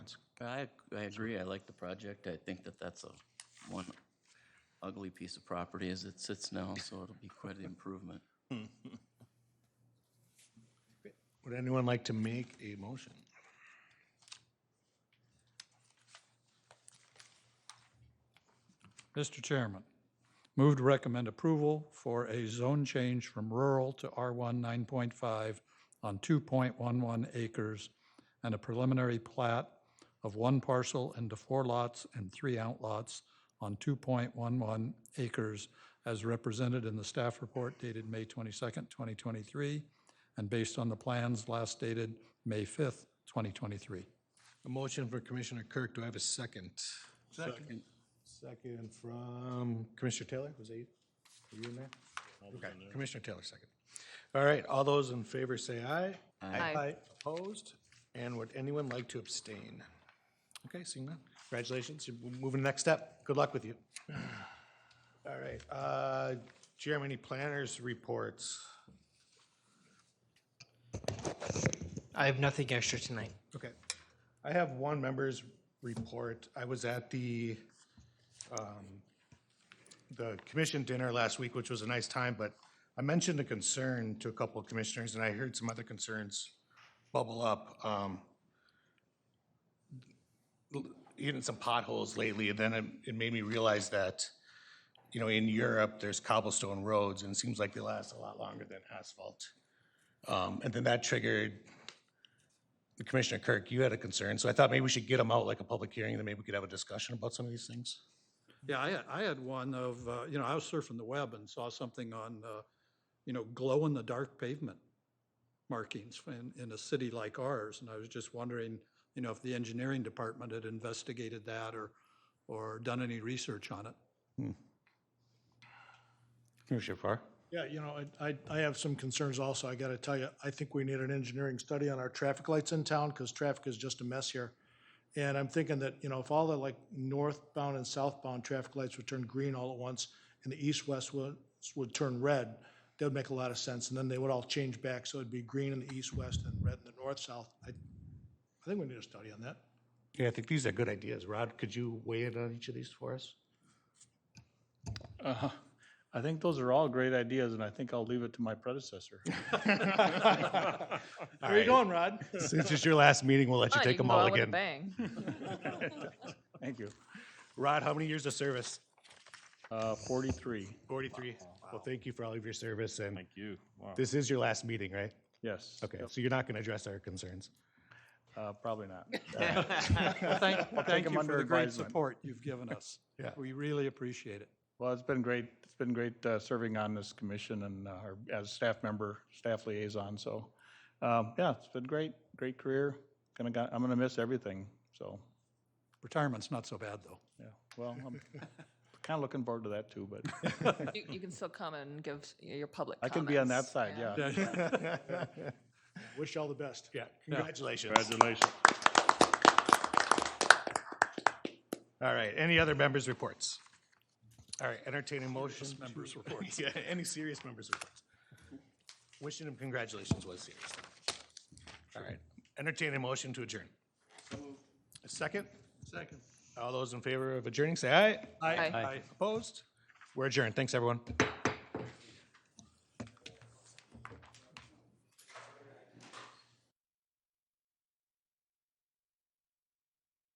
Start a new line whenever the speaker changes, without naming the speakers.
I, I agree, I like the project, I think that that's a one ugly piece of property as it sits now, so it'll be quite an improvement.
Would anyone like to make a motion?
Mr. Chairman, move to recommend approval for a zone change from rural to R1 9.5 on 2.11 acres and a preliminary plat of one parcel into four lots and three outlots on 2.11 acres as represented in the staff report dated May 22nd, 2023, and based on the plans last dated May 5th, 2023.
A motion for Commissioner Kirk, do I have a second? Second. Second from Commissioner Taylor, was that you? Were you in there? Okay, Commissioner Taylor, second. All right, all those in favor say aye.
Aye.
Opposed? And would anyone like to abstain? Okay, seeing none. Congratulations, you're moving to the next step. Good luck with you. All right, uh, Jeremy, any planners reports?
I have nothing extra tonight.
Okay. I have one member's report. I was at the, um, the commission dinner last week, which was a nice time, but I mentioned a concern to a couple of commissioners, and I heard some other concerns bubble up. Um, Even some potholes lately, and then it- it made me realize that, you know, in Europe, there's cobblestone roads, and it seems like they last a lot longer than asphalt. Um, And then that triggered Commissioner Kirk, you had a concern, so I thought maybe we should get them out like a public hearing, then maybe we could have a discussion about some of these things.
Yeah, I had, I had one of, uh, you know, I was surfing the web and saw something on, uh, you know, glow in the dark pavement markings in, in a city like ours. And I was just wondering, you know, if the engineering department had investigated that or, or done any research on it.
Commissioner Farr?
Yeah, you know, I, I- I have some concerns also. I got to tell you, I think we need an engineering study on our traffic lights in town because traffic is just a mess here. And I'm thinking that, you know, if all the like northbound and southbound traffic lights would turn green all at once and the east-west would, would turn red, that would make a lot of sense. And then they would all change back, so it'd be green in the east-west and red in the north-south. I, I think we need a study on that.
Yeah, I think these are good ideas. Rod, could you weigh in on each of these for us?
Uh-huh. I think those are all great ideas, and I think I'll leave it to my predecessor.
Where are you going, Rod? Since it's your last meeting, we'll let you
Oh,
take
can
them
go
all
out with a
again.
Bang.
Thank you.
Rod, how many years of service?
Uh, Forty-three.
Forty-three. Well, thank you for all of your service, and
you. Wow.
this is your last meeting, right?
Yes.
Okay, so you're not going to address our concerns.
Uh, Probably not.
Well, thank, thank
them
you
under
for the great
advisement.
support you've given us.
Yeah.
We really appreciate it.
Well, it's been great. It's been great uh, serving on this commission and uh, or as staff member, staff liaison. So, um, yeah, it's been great, great career. Gonna, got- I'm gonna miss everything. So,
Retirement's not so bad, though.
yeah, well, I'm kind of looking forward to that too, but
You, you can still come and give s- your public
I
comments.
can be on that side, yeah.
Wish you all the best.
Yeah, congratulations.
Congratulations.
All right, any other members' reports? All right, entertaining motion. Members' reports. Yeah, any serious members' reports. Wishing him congratulations was serious. All right, entertaining motion to adjourn. A second? Second. All those in favor of adjourning, say aye.
Aye. Aye.
Opposed? We're adjourned. Thanks, everyone.